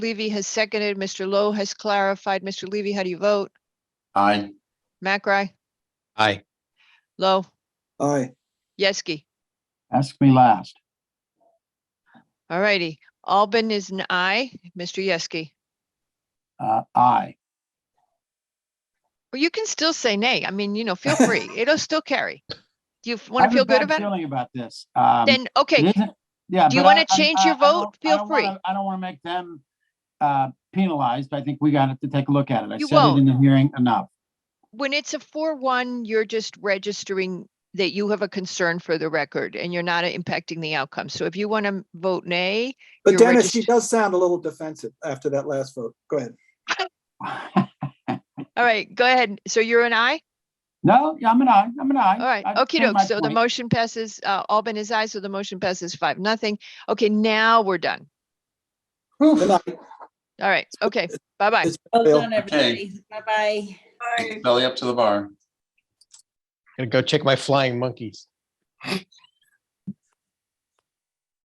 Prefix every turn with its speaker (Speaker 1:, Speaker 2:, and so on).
Speaker 1: Levy has seconded. Mr. Lowe has clarified. Mr. Levy, how do you vote?
Speaker 2: Aye.
Speaker 1: Macri,
Speaker 3: Aye.
Speaker 1: Lowe,
Speaker 4: Aye,
Speaker 1: Yeski.
Speaker 2: Ask me last.
Speaker 1: All righty. Albin is an aye. Mr. Yeski.
Speaker 2: Uh, aye.
Speaker 1: Or you can still say nay. I mean, you know, feel free. It'll still carry. Do you want to
Speaker 2: I have a
Speaker 1: feel good
Speaker 2: bad
Speaker 1: about it?
Speaker 2: Feeling about this. Um,
Speaker 1: Then, okay,
Speaker 2: it isn't- Yeah.
Speaker 1: Do you
Speaker 2: but I-
Speaker 1: wanna
Speaker 2: I'm-
Speaker 1: change
Speaker 2: I-
Speaker 1: your
Speaker 2: I don't-
Speaker 1: vote? Feel
Speaker 2: I don't wanna-
Speaker 1: free.
Speaker 2: I don't want to make them, uh, penalized. I think we got to take a look at it. I
Speaker 1: You
Speaker 2: said it in the hearing enough.
Speaker 1: when it's a four one, you're just registering that you have a concern for the record and you're not impacting the outcome. So if you want to vote nay,
Speaker 4: but
Speaker 1: You're
Speaker 4: Dennis, she
Speaker 1: regist-
Speaker 4: does sound a little defensive after that last vote. Go ahead.
Speaker 1: all right, go ahead. So you're an aye?
Speaker 2: No, yeah, I'm an aye. I'm an aye.
Speaker 1: All right,
Speaker 2: I
Speaker 1: okey doke.
Speaker 2: understand my
Speaker 1: So the
Speaker 2: point.
Speaker 1: motion passes, uh, Albin is aye, so the motion passes five, nothing. Okay, now we're done.
Speaker 4: Good night.
Speaker 1: All right, okay, bye-bye.
Speaker 4: It's-
Speaker 5: Well
Speaker 4: Bill.
Speaker 5: done, everybody. Bye-bye.
Speaker 3: Gonna go check my flying monkeys.